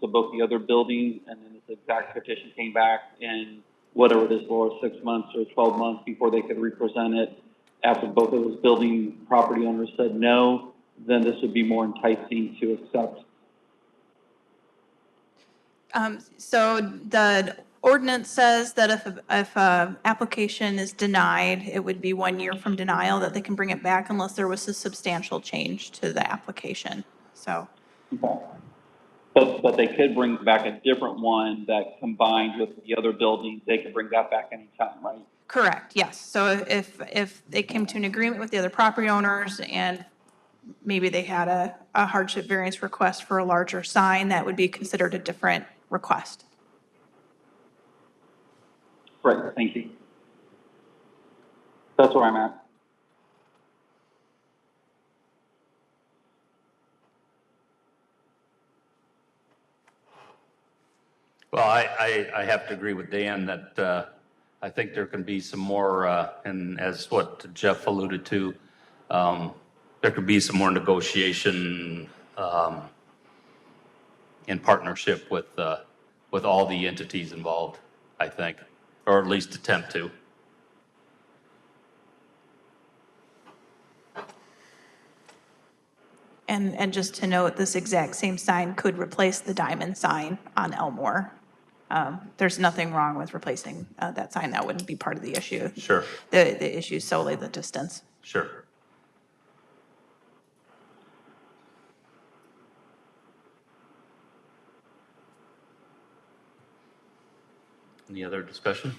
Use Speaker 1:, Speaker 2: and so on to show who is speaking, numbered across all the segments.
Speaker 1: to both the other buildings, and then this exact petition came back in whatever it is, Laura, six months or twelve months before they could represent it. After both of those building property owners said no, then this would be more enticing to accept.
Speaker 2: Um, so the ordinance says that if, if a application is denied, it would be one year from denial that they can bring it back unless there was a substantial change to the application. So,
Speaker 1: Okay. But, but they could bring back a different one that combined with the other buildings, they could bring that back anytime, right?
Speaker 2: correct, yes. So if, if they came to an agreement with the other property owners and maybe they had a, a hardship variance request for a larger sign, that would be considered a different request.
Speaker 1: Right, thank you. That's where I'm at.
Speaker 3: Well, I, I, I have to agree with Dan that, uh, I think there can be some more, uh, and as what Jeff alluded to, um, there could be some more negotiation, um, in partnership with, uh, with all the entities involved, I think, or at least attempt to.
Speaker 2: And, and just to note, this exact same sign could replace the diamond sign on Elmore. Um, There's nothing wrong with replacing uh, that sign. That wouldn't be part of the issue.
Speaker 3: Sure,
Speaker 2: The, the issue is solely the distance.
Speaker 3: sure. Any other discussion?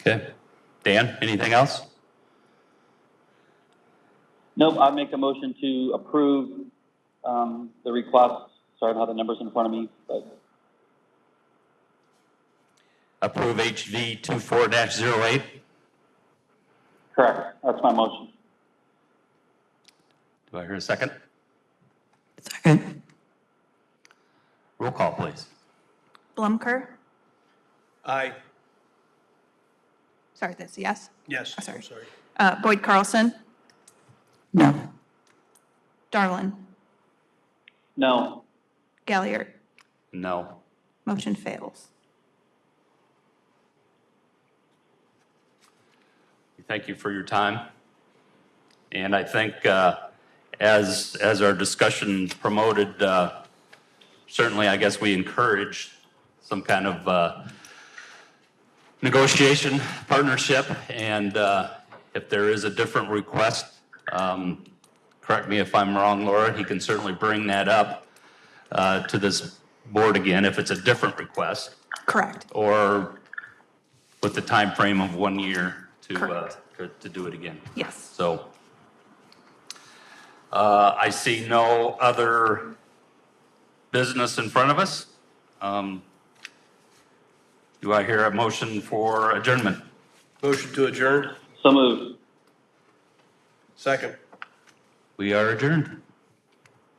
Speaker 3: Okay. Dan, anything else?
Speaker 1: Nope, I make a motion to approve, um, the request. Sorry, I don't have the numbers in front of me, but
Speaker 3: Approve HV 24-08.
Speaker 1: correct, that's my motion.
Speaker 3: Do I hear a second?
Speaker 4: Second.
Speaker 3: Roll call, please.
Speaker 2: Blumker?
Speaker 4: Aye.
Speaker 2: Sorry, that's a yes.
Speaker 4: Yes.
Speaker 2: Oh, sorry.
Speaker 4: I'm Sorry.
Speaker 2: Uh, Boyd Carlson?
Speaker 4: No.
Speaker 2: Darlin?
Speaker 1: No,
Speaker 2: Galliard?
Speaker 3: No.
Speaker 2: Motion fails.
Speaker 3: We Thank you for your time. And I think uh, as, as our discussion promoted, uh, certainly, I guess we encourage some kind of uh, negotiation, partnership, and uh, if there is a different request, um, correct me if I'm wrong, Laura, he can certainly bring that up uh, to this board again if it's a different request,
Speaker 2: Correct.
Speaker 3: or with the time frame of one year to, uh,
Speaker 2: Correct.
Speaker 3: to- to do it again.
Speaker 2: Yes.
Speaker 3: So uh, I see no other business in front of us. Um, Do I hear a motion for adjournment?
Speaker 4: Motion to adjourn?
Speaker 1: so moved.
Speaker 4: Second.
Speaker 3: We are adjourned.